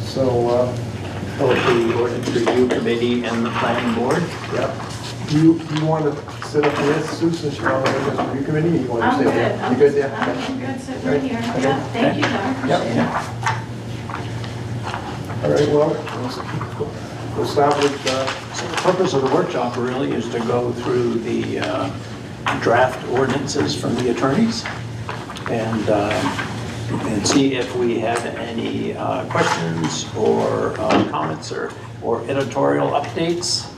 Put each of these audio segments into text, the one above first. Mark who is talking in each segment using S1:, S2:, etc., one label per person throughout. S1: So, uh,
S2: Both the ordinance review committee and the planning board.
S1: yeah. Do you, do you want to sit up here, Sue, since you're on the ordinance review committee? You want to
S3: I'm
S1: sit
S3: good.
S1: up there?
S3: I'm
S1: You good
S3: just-
S1: there?
S3: I'm good sitting right here.
S1: Okay.
S3: Yeah, thank you, Doug. Appreciate it.
S1: Yeah. All right, well, let's- we'll start with, uh,
S2: So the purpose of the workshop really is to go through the uh, draft ordinances from the attorneys and, uh, and see if we have any uh, questions or uh, comments or, or editorial updates.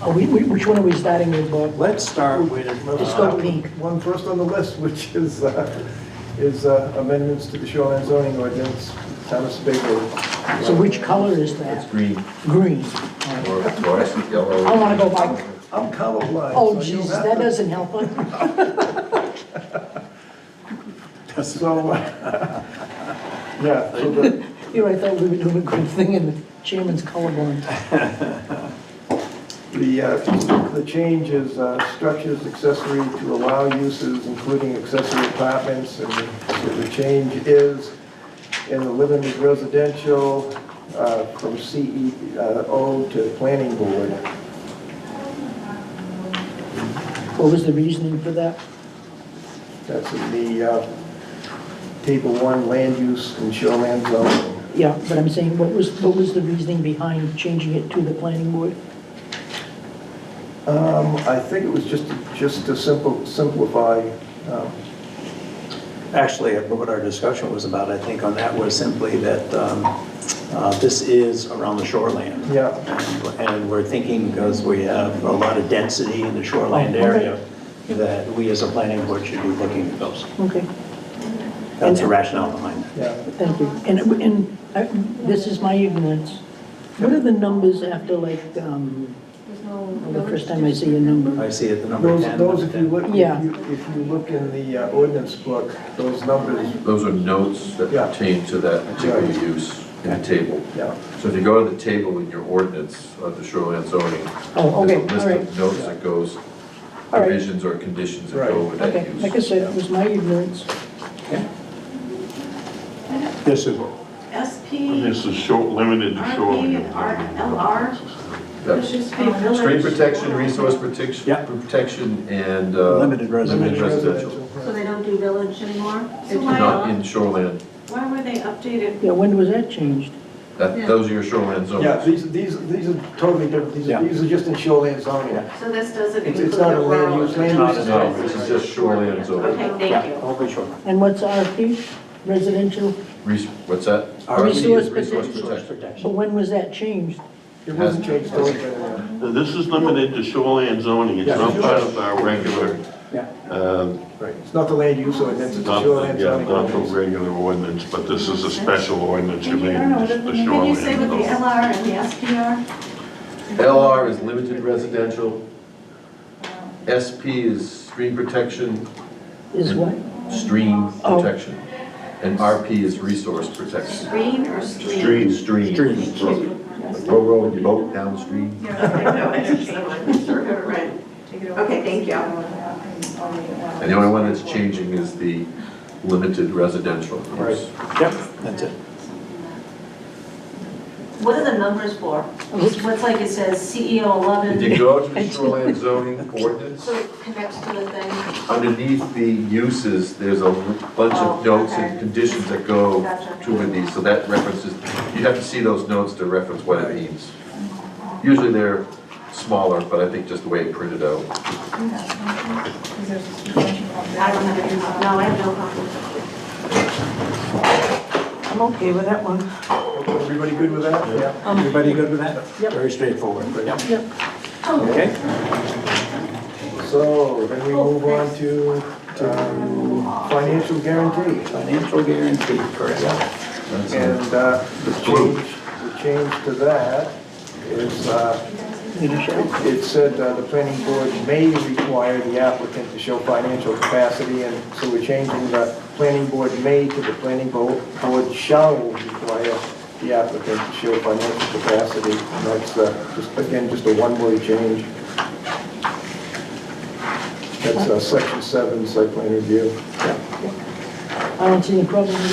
S4: Are Oh, we, we- which one are we starting with, Bob?
S2: Let's start with.
S1: Let's
S4: go
S2: uh,
S1: start
S4: pink.
S1: with one first on the list, which is, uh, is uh, amendments to the shoreline zoning ordinance, town of Sebago.
S4: So which color is that?
S5: It's green
S4: Green. Oh,
S5: or fluorescent yellow.
S4: I wanna go by,
S1: I'm colorblind.
S4: oh
S1: so you'll
S4: jeez,
S1: have
S4: that
S1: to-
S4: doesn't help.
S1: So, uh, yeah, so the,
S4: Here, I thought we were doing a good thing and the chairman's colorblind.
S1: the, uh, the change is uh, structures accessory to allow uses, including accessory apartments, and so the change is in the limited residential uh, from CEO to planning board.
S4: What was the reasoning for that?
S1: That's in the uh, table one, land use and shoreland zoning.
S4: Yeah, but I'm saying, what was, what was the reasoning behind changing it to the planning board?
S1: Um, I think it was just, just to simple, simplify, um,
S2: Actually, what our discussion was about, I think, on that was simply that um, uh, this is around the shoreline.
S1: Yeah.
S2: And we're thinking, because we have a lot of density in the shoreline
S4: Oh, okay.
S2: area, that we as a planning board should be looking at those.
S4: Okay,
S2: That's the rationale behind it.
S1: yeah.
S4: thank you. And, and I- this is my ignorance. What are the numbers after like, um, the first time I see a number?
S2: I see it, the number
S1: Those,
S2: 10.
S1: those, if you
S2: number
S1: look, if
S4: Yeah.
S1: you, if you look in the uh, ordinance book, those numbers,
S5: Those are notes that
S1: Yeah.
S5: pertain to that particular
S1: Right.
S5: use in the table.
S1: yeah.
S5: So if you go to the table in your ordinance of the shoreline zoning,
S4: Oh, okay, all
S5: there's a list
S4: right.
S5: of notes that goes,
S4: All right.
S5: provisions or conditions that go
S1: Right.
S5: with that
S4: Okay,
S5: use.
S4: like I said, it was my ignorance.
S2: ten. This is,
S3: SP,
S6: This is short, limited to
S3: RP,
S6: shoreline.
S3: and R- LR.
S5: Yep.
S3: Let's just be village.
S5: Stream protection, resource protection,
S2: Yeah.
S5: protection, and. uh,
S2: Limited residential.
S5: residential.
S7: So they don't do village anymore?
S3: So why
S5: Not
S3: not?
S5: in shoreline,
S3: Why were they updated?
S4: Yeah, when was that changed?
S5: that,
S7: Yeah.
S5: those are your shoreline zones.
S1: Yeah, these, these, these are totally different, these
S2: Yeah.
S1: are, these are just in shoreland zoning.
S2: Yeah.
S3: So this doesn't
S1: It's-
S3: include
S1: it's
S3: the
S1: not a land
S3: rural.
S1: use, land
S2: use
S3: and
S2: is
S3: the
S2: not-
S5: No,
S3: residential.
S5: this is just shoreline zoning.
S3: Okay,
S2: yeah,
S3: thank you.
S2: only shoreline.
S4: And what's RP? Residential?
S5: Res- What's that?
S2: Our
S5: RP is
S4: resource protection.
S2: Resource
S4: But
S2: protection.
S4: when was that changed?
S1: It wasn't changed, it wasn't there.
S6: This is limited to shoreline zoning, it's
S1: Yeah.
S6: not part of our regular,
S2: Yeah.
S6: um,
S1: Right, it's not the land use ordinance, it's the
S6: not,
S1: shoreland
S6: yeah,
S1: zoning.
S6: not the
S1: ordinance.
S6: regular ordinance, but this is a special ordinance
S3: Can you- I don't know,
S6: related
S3: what-
S6: to the
S3: Can you say what the
S6: shoreline.
S3: LR and the SP are?
S5: LR is limited residential. SP is stream protection,
S4: Is what?
S5: stream
S4: Oh.
S5: protection. And RP is resource protection.
S3: Green or street?
S5: Stream.
S2: Stream.
S5: Row, row your boat downstream.
S3: Yeah, I know, I understand. Sure, right. Okay, thank you.
S5: And the only one that's changing is the limited residential.
S1: Oh.
S5: use.
S2: Yep, that's it.
S7: What are the numbers for? What's what's like it says CEO
S5: If
S7: 11,
S5: you go to the shoreline zoning ordinance,
S7: so it connects to the thing?
S5: underneath the uses, there's a bunch
S7: Oh,
S5: of notes
S7: okay.
S5: and conditions that go
S7: Gotcha.
S5: to with these, so that references, you have to see those notes to reference what it means. Usually they're smaller, but I think just the way it printed out.
S7: I don't have any, no, I have no problem.
S4: I'm okay with that one.
S1: Everybody good with that? Yeah.
S2: Everybody good with that? Very straightforward. Yep.
S4: Yep.
S2: Okay.
S1: So, then we move on to, um, financial guarantee.
S2: Financial guarantee, correct?
S5: That's it.
S1: And uh, the change, the change to that is, uh, it said uh, the planning board may require the applicant to show financial capacity, and so we're changing the planning board may to the planning bo- board shall require the applicant to show financial capacity. And That's, uh, just, again, just a one-word change. That's uh, section seven, site plan review.
S4: I don't see any problem with that.